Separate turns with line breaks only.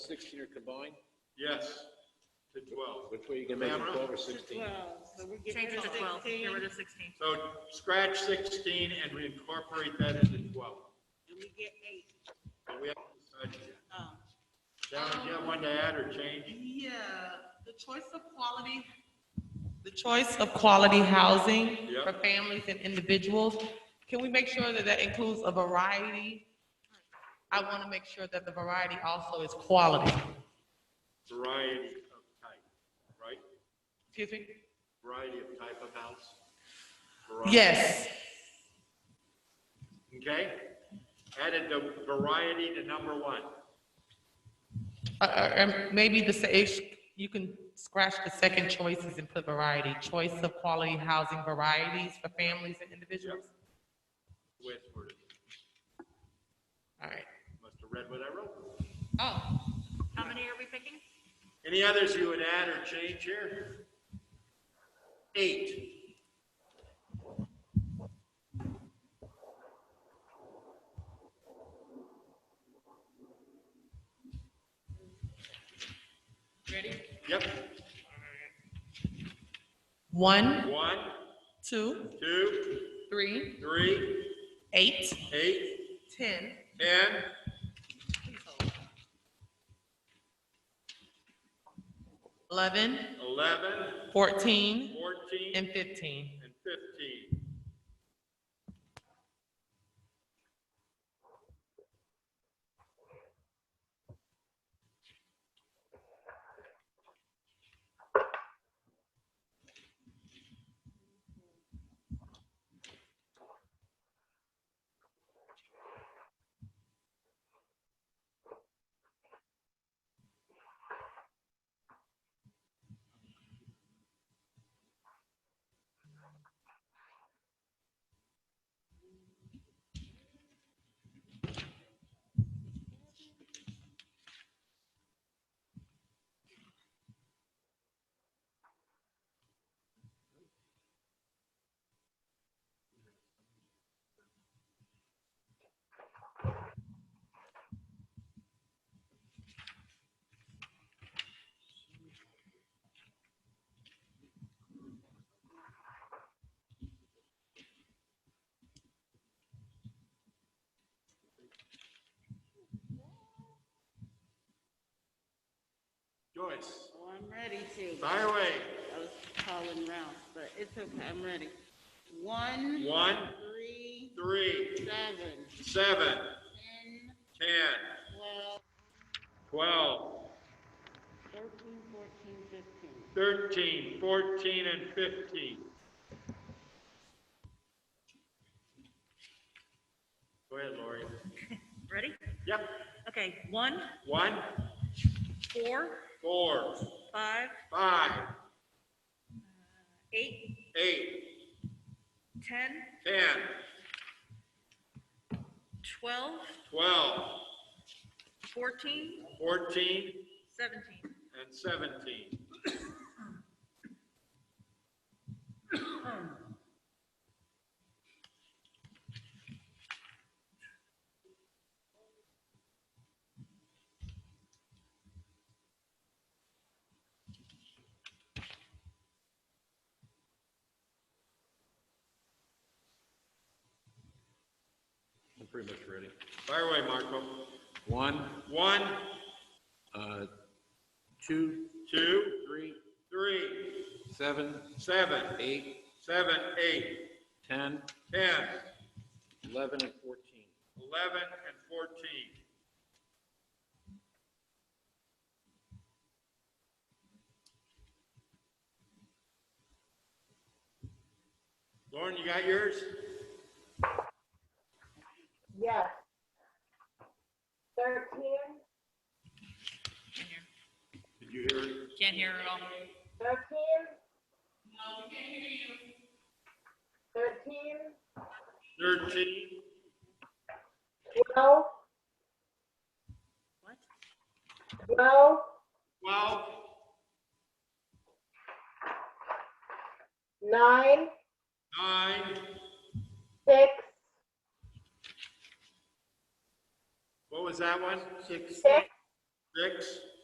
sixteen are combined?
Yes, to twelve.
Which way you can make it
Camera?
twelve or
to
sixteen?
12, so we're getting
Change it
rid
to
of
twelve, get
16,
rid of sixteen.
So scratch sixteen and we incorporate that into twelve.
And we get eight.
But we haven't decided yet.
Um,
Sharon, do you have one to add or change?
Yeah, the choice of quality. The choice of quality housing
Yep.
for families and individuals. Can we make sure that that includes a variety? I want to make sure that the variety also is quality.
Variety of type, right?
Excuse me?
Variety of type of house? Variety.
Yes,
Okay? Added the variety to number one.
Uh, uh, and maybe the, se- if you can scratch the second choices and put variety. Choice of quality housing varieties for families and individuals.
With, word.
All right.
must have read what I wrote.
Oh,
How many are we picking?
Any others you would add or change here? Eight.
ready?
Yep.
One,
One,
two,
two,
three,
three,
eight,
eight,
ten,
ten.
eleven,
11,
fourteen,
14, and
and fifteen.
15. Joyce,
oh, I'm ready to.
fire away.
I was calling rounds, but it's okay, I'm ready. One,
One,
three,
three,
seven,
seven,
ten,
10,
twelve,
12,
thirteen, fourteen, fifteen.
13, 14, and 15. Go ahead, Lori.
Ready?
Yep.
Okay, one,
One,
four,
four,
five,
five,
eight,
eight,
ten,
10,
twelve,
12,
fourteen,
14,
seventeen.
and 17.
I'm pretty much ready.
Fire away, Marco.
One,
One,
uh, two,
two,
three,
three,
seven,
seven,
eight,
seven, eight,
ten,
ten,
eleven, and fourteen.
eleven, and fourteen. Lauren, you got yours?
Yes. Thirteen,
Did you hear it?
Can't hear it all.
thirteen? No, we can't hear you.
Thirteen,
Thirteen, twelve,
What?
twelve,
twelve,
nine,
nine,
six,
what was that one? Six.
six,
six,